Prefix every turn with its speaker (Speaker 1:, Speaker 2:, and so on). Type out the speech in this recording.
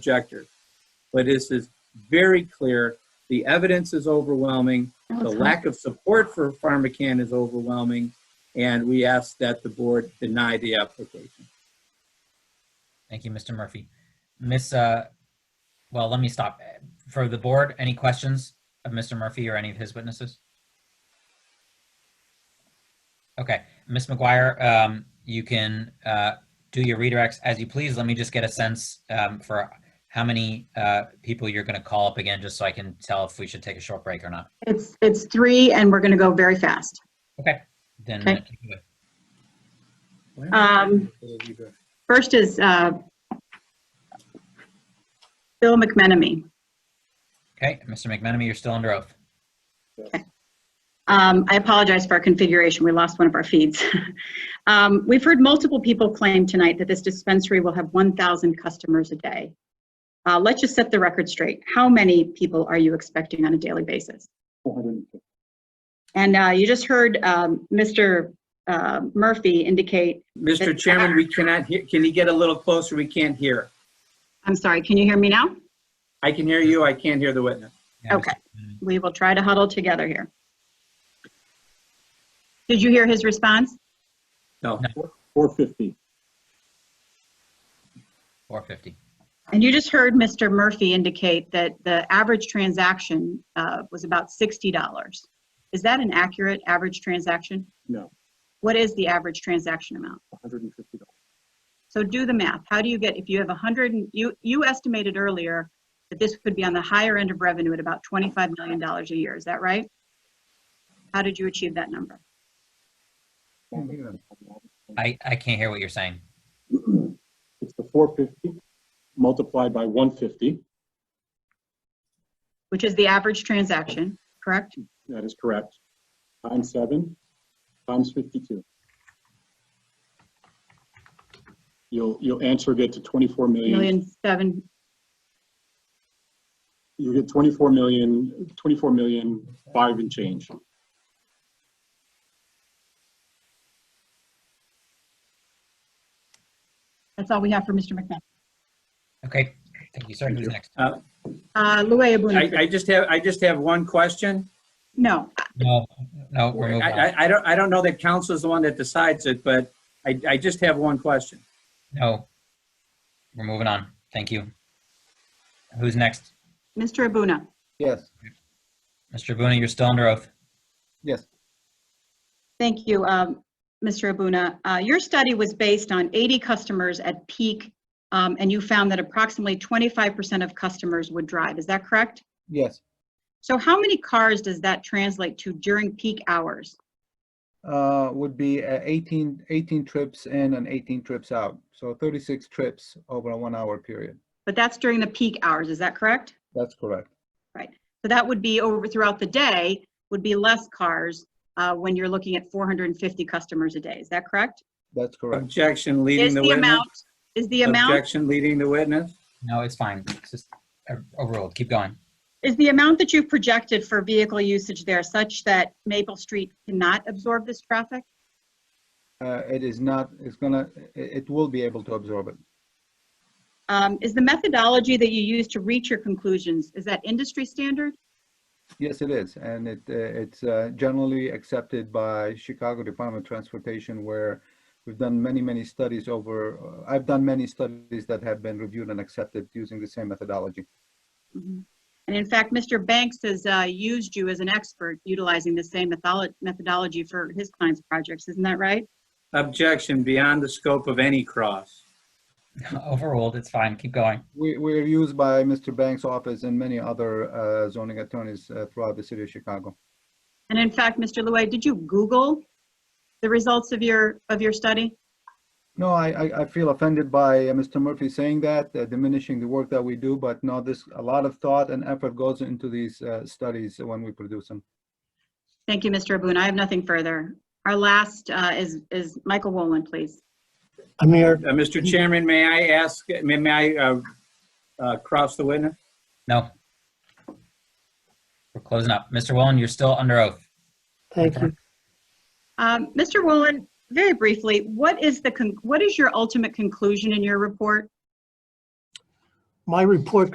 Speaker 1: objector. But this is very clear. The evidence is overwhelming. The lack of support for PharmaCann is overwhelming. And we ask that the board deny the application.
Speaker 2: Thank you, Mr. Murphy. Miss, uh, well, let me stop. For the board, any questions of Mr. Murphy or any of his witnesses? Okay, Miss McGuire, um, you can, uh, do your redirects as you please. Let me just get a sense, um, for how many, uh, people you're gonna call up again, just so I can tell if we should take a short break or not.
Speaker 3: It's, it's three and we're going to go very fast.
Speaker 2: Okay, then.
Speaker 3: Okay. Um, First is uh, Bill McMenamy.
Speaker 2: Okay, Mr. McMenamy, you're still under oath.
Speaker 3: Um, I apologize for our configuration. We lost one of our feeds. Um, We've heard multiple people claim tonight that this dispensary will have 1,000 customers a day. Uh, Let's just set the record straight. How many people are you expecting on a daily basis?
Speaker 4: 450.
Speaker 3: And uh, you just heard um, Mr. uh, Murphy indicate,
Speaker 1: Mr.
Speaker 3: uh,
Speaker 1: Chairman, we cannot, hear. can you get a little closer? We can't hear.
Speaker 3: I'm sorry, can you hear me now?
Speaker 1: I can hear you, I can't hear the witness.
Speaker 2: Yeah, Mr.
Speaker 3: Okay.
Speaker 2: McMenamy.
Speaker 3: We will try to huddle together here. Did you hear his response?
Speaker 1: No.
Speaker 2: Four fifty.
Speaker 3: And you just heard Mr. Murphy indicate that the average transaction uh, was about $60. Is that an accurate average transaction?
Speaker 4: No,
Speaker 3: What is the average transaction amount?
Speaker 4: $150.
Speaker 3: So do the math. How do you get, if you have 100, and- you, you estimated earlier that this could be on the higher end of revenue at about $25 million a year, is that right? How did you achieve that number?
Speaker 2: I, I can't hear what you're saying.
Speaker 4: It's the 450 multiplied by 150.
Speaker 3: Which is the average transaction, correct?
Speaker 4: That is correct. Times seven, times 52. You'll, you'll answer get to 24 million.
Speaker 3: Million seven,
Speaker 4: You get 24 million, 24 million, five and change.
Speaker 3: that's all we have for Mr. McMenamin.
Speaker 2: Okay, thank you, sir.
Speaker 4: Thank
Speaker 2: Who's
Speaker 4: you.
Speaker 2: next?
Speaker 3: Uh, Louis
Speaker 1: I,
Speaker 3: Abunakis.
Speaker 1: I just have, I just have one question.
Speaker 3: No,
Speaker 2: No, no, we're
Speaker 1: I,
Speaker 2: moving on.
Speaker 1: I, I don't, I don't know that council is the one that decides it, but I, I just have one question.
Speaker 2: No. We're moving on. Thank you. Who's next?
Speaker 3: Mr. Abuna.
Speaker 5: Yes,
Speaker 2: Mr. Abuna, you're still under oath.
Speaker 5: yes,
Speaker 3: Thank you, um, Mr. Abuna. Uh, Your study was based on 80 customers at peak, um, and you found that approximately 25% of customers would drive. Is that correct?
Speaker 5: yes.
Speaker 3: So how many cars does that translate to during peak hours?
Speaker 5: Uh, would be uh, 18, 18 trips in and 18 trips out. So 36 trips over a one hour period.
Speaker 3: But that's during the peak hours, is that correct?
Speaker 5: That's correct.
Speaker 3: So that would be over throughout the day, would be less cars uh, when you're looking at 450 customers a day. Is that correct?
Speaker 5: That's correct.
Speaker 1: Objection leading
Speaker 3: Is
Speaker 1: the
Speaker 3: the
Speaker 1: witness.
Speaker 3: amount, is the amount,
Speaker 1: Objection leading the witness.
Speaker 2: No, it's fine. It's just uh, overruled. Keep going.
Speaker 3: is the amount that you've projected for vehicle usage there such that Maple Street cannot absorb this traffic?
Speaker 5: Uh, it is not, it's gonna, it, it will be able to absorb it.
Speaker 3: Um, Is the methodology that you use to reach your conclusions, is that industry standard?
Speaker 5: Yes, it is. And it, uh, it's uh, generally accepted by Chicago Department of Transportation where we've done many, many studies over, uh, I've done many studies that have been reviewed and accepted using the same methodology.
Speaker 3: And in fact, Mr. Banks has uh, used you as an expert utilizing the same metholo- methodology for his clients' projects, isn't that right?
Speaker 1: Objection beyond the scope of any cross.
Speaker 2: Overruled. It's fine. Keep going.
Speaker 5: We, we're used by Mr. Banks' office and many other uh, zoning attorneys uh, throughout the city of Chicago.
Speaker 3: And in fact, Mr. Louie, did you Google the results of your, of your study?
Speaker 5: No, I, I, I feel offended by uh, Mr. Murphy saying that, uh, diminishing the work that we do, but no, this, a lot of thought and effort goes into these uh, studies when we produce them.
Speaker 3: Thank you, Mr. Abun. I have nothing further. Our last uh, is, is Michael Wolin, please.
Speaker 1: Uh,
Speaker 6: Amir,
Speaker 1: Mr. Chairman, may I ask, may, may I, uh, uh, cross the witness?
Speaker 2: No. We're closing up. Mr. Willen, you're still under oath.
Speaker 6: thank you.
Speaker 3: Um, Mr. Wolin, very briefly, what is the, con- what is your ultimate conclusion in your report?
Speaker 6: my report